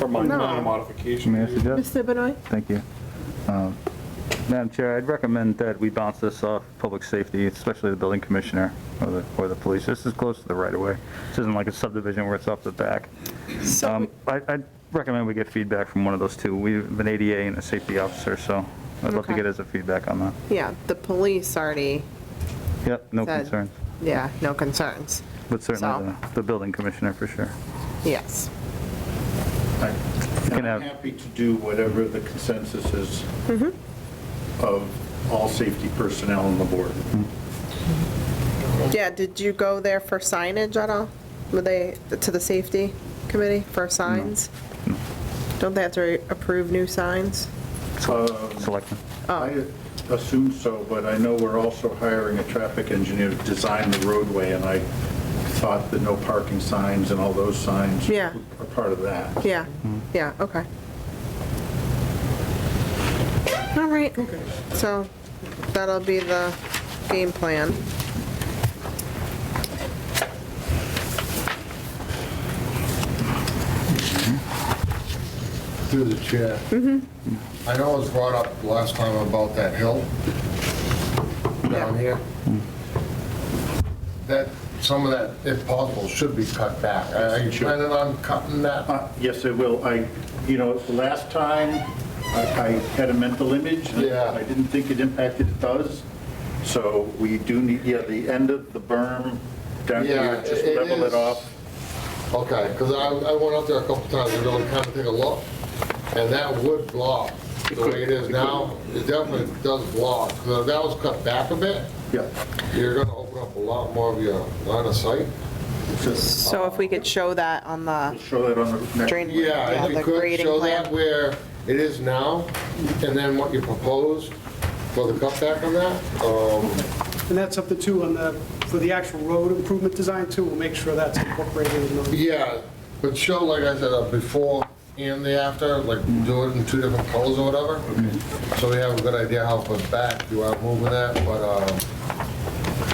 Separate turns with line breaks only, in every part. Or minor
No.
minor
May I
modification.
suggest?
Mr. Benoit?
Thank you. Um, Madam Chair, I'd recommend that we bounce this off public safety, especially the building commissioner or the, or the police. This is close to the right of way. This isn't like a subdivision where it's off the back.
So,
Um, I, I'd recommend we get feedback from one of those two. We have an ADA and a safety officer, so I'd love to
Okay.
get his feedback on that.
yeah, the police already,
Yep, no
Said-
concerns,
yeah, no concerns.
but certainly
So-
the, the building commissioner for sure.
Yes.
Can
I'm
have-
happy to do whatever the consensus is
Mm-hmm.
of all safety personnel on the board.
Yeah, did you go there for signage at all? Were they, to the safety committee for signs? Don't they have to approve new signs?
Selectmen.
Oh.
I assume so, but I know we're also hiring a traffic engineer to design the roadway, and I thought that no parking signs and all those signs
Yeah.
are part of that.
Yeah, yeah, okay. All right, so that'll be the game plan.
Through the chair. I know it was brought up last time about that hill down here. That, some of that, if possible, should be cut back. Are you planning on cutting that?
Uh, Yes, I will. I, you know, the last time, I I had a mental image. and
Yeah.
I didn't think it impacted, it does. So we do need, yeah, the end of the berm down
Yeah,
here, just
it
level
is.
it off.
Okay, because I, I went up there a couple times to really kind of take a look, and that would block the way it is now. It definitely does block. So if that was cut back a bit,
Yeah.
you're going to open up a lot more of your line of sight.
Just
So if we could show that on the
show that on the next.
drain.
Yeah, if
the
you could
grading
show
plan.
that where it is now, and then what you propose for the cutback on that,
Oh.
um,
And that's up to two on the, for the actual road improvement design too, we'll make sure that's incorporated in those.
yeah, but show, like I said, a before and the after, like do it in two different colors or whatever, so we have a good idea how far back you are moving that, but um,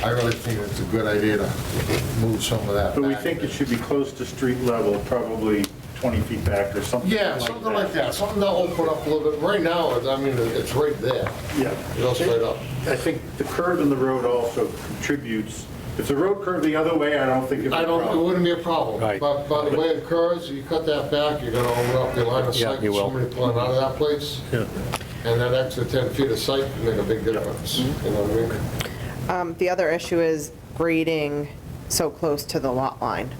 I really think it's a good idea to move some of that
But we
back.
think it should be close to street level, probably 20 feet back or something.
Yeah, something like that, something to open up a little bit, right now, it's- I mean, it's right there,
Yeah.
you know, straight up.
I think the curve in the road also contributes. If the road curved the other way, I don't think it'd be
I
a
don't, it
problem.
wouldn't be a problem.
Right.
But by the way it curves, you cut that back, you're gonna open up your line of
Yeah,
sight.
you will.
Somebody pulling out of that place. And that extra 10 feet of sight can make a big difference, you know what I mean?
Um, The other issue is grading so close to the lot line.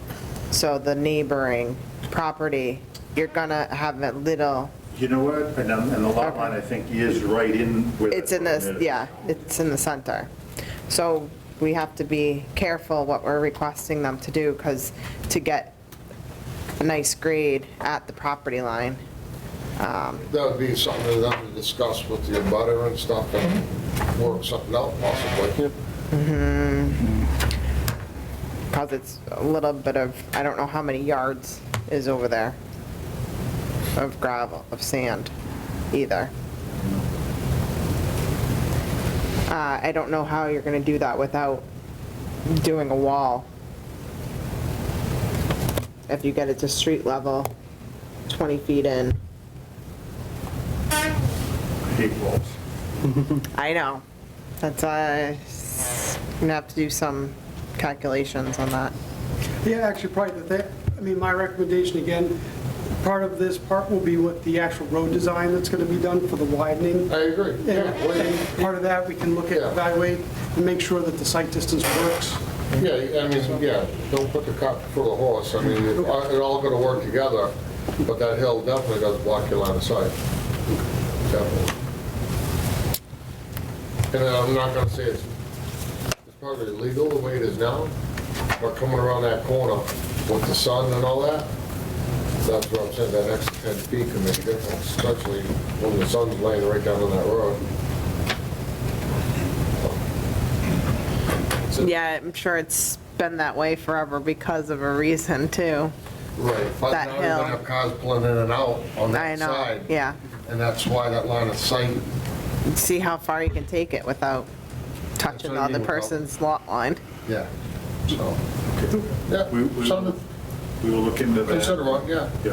So the neighboring property, you're gonna have a little,
You know what? And um, and the lot line, I think, is right in where. that
it's in
berm
this,
is.
yeah, it's in the center. So we have to be careful what we're requesting them to do, because to get a nice grade at the property line,
That would be something that I would discuss with your butter and stuff and work something out possibly.
because it's a little bit of, I don't know how many yards is over there of gravel, of sand either. Uh, I don't know how you're gonna do that without doing a wall. If you get it to street level, 20 feet in.
I Hate walls.
I know. That's, uh, s- gonna have to do some calculations on that.
Yeah, actually, probably the thing, I mean, my recommendation again, part of this part will be with the actual road design that's gonna be done for the widening.
I agree.
And
Yeah, well, you-
and part of that, we can look at,
Yeah.
evaluate, and make sure that the site distance works.
Yeah, I mean, yeah, don't put the cart before the horse. I mean, it it all gonna work together, but that hill definitely does block your line of sight. Definitely. And I'm not gonna say it's, it's probably illegal the way it is now, but coming around that corner with the sun and all that, that's what I'm saying, that extra 10 feet can make a difference, especially when the sun's laying right down on that road.
Yeah, I'm sure it's been that way forever because of a reason, too.
Right, but
That
now you're gonna
hill.
have cars pulling in and out on
I
that
know,
side.
yeah.
And that's why that line of sight,
See how far you can take it without touching
what
the
I
other
mean, without-
person's lot line.
yeah, so,
We-
yeah,
We
something
we will look into
to consider,
that.
on, yeah.
Yeah.